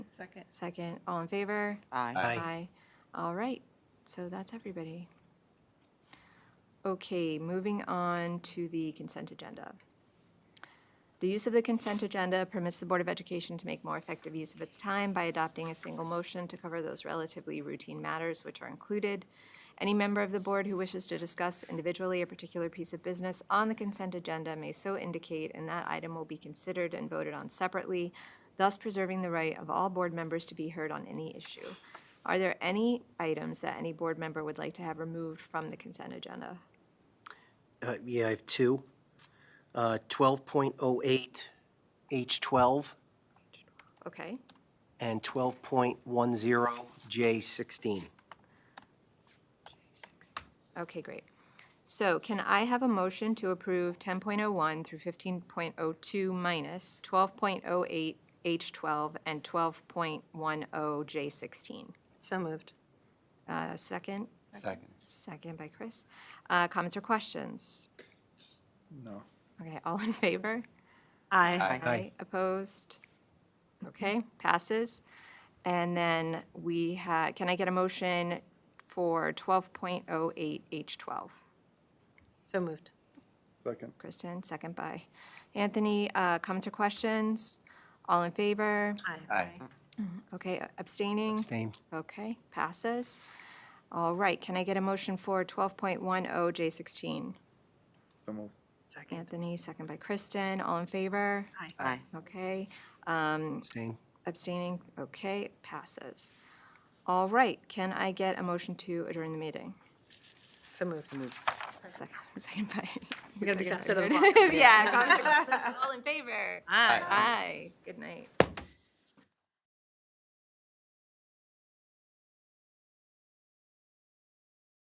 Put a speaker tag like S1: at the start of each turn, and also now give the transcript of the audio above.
S1: Second.
S2: Second, all in favor?
S3: Aye.
S2: All right, so that's everybody. Okay, moving on to the consent agenda. The use of the consent agenda permits the Board of Education to make more effective use of its time by adopting a single motion to cover those relatively routine matters which are included. Any member of the board who wishes to discuss individually a particular piece of business on the consent agenda may so indicate, and that item will be considered and voted on separately, thus preserving the right of all board members to be heard on any issue. Are there any items that any board member would like to have removed from the consent agenda?
S3: Uh, Yeah, I have two. Uh, 12.08, H12,
S2: Okay,
S3: and 12.10, J16.
S2: okay, great. So can I have a motion to approve 10.01 through 15.02 minus 12.08 H12 and 12.10 J16?
S4: So moved.
S2: oh Uh, Second,
S5: Second.
S2: second by Chris. Uh, Comments or questions?
S6: No.
S2: Okay, all in favor?
S4: Aye.
S5: Aye.
S2: Aye. Opposed? Okay, passes. And then we ha, can I get a motion for 12.08 H12?
S4: So moved.
S6: Second.
S2: Kristen, second by Anthony. Uh, Comments or questions? All in favor?
S5: Aye.
S2: Okay, abstaining?
S3: Abstain.
S2: Okay, passes. All right, can I get a motion for 12.10 J16?
S6: So moved.
S4: Second.
S2: Anthony, second by Kristen. All in favor?
S4: Aye.
S2: Okay.
S3: Abstain.
S2: Abstaining? Okay, passes. All right, can I get a motion to adjourn the meeting?
S4: So moved. Moved.
S2: Second second by.
S4: We're gonna
S2: second
S4: be
S2: by
S4: faster than
S2: Meredith. Yeah. comments and questions. All in favor?
S4: Aye.
S2: Aye. Good night.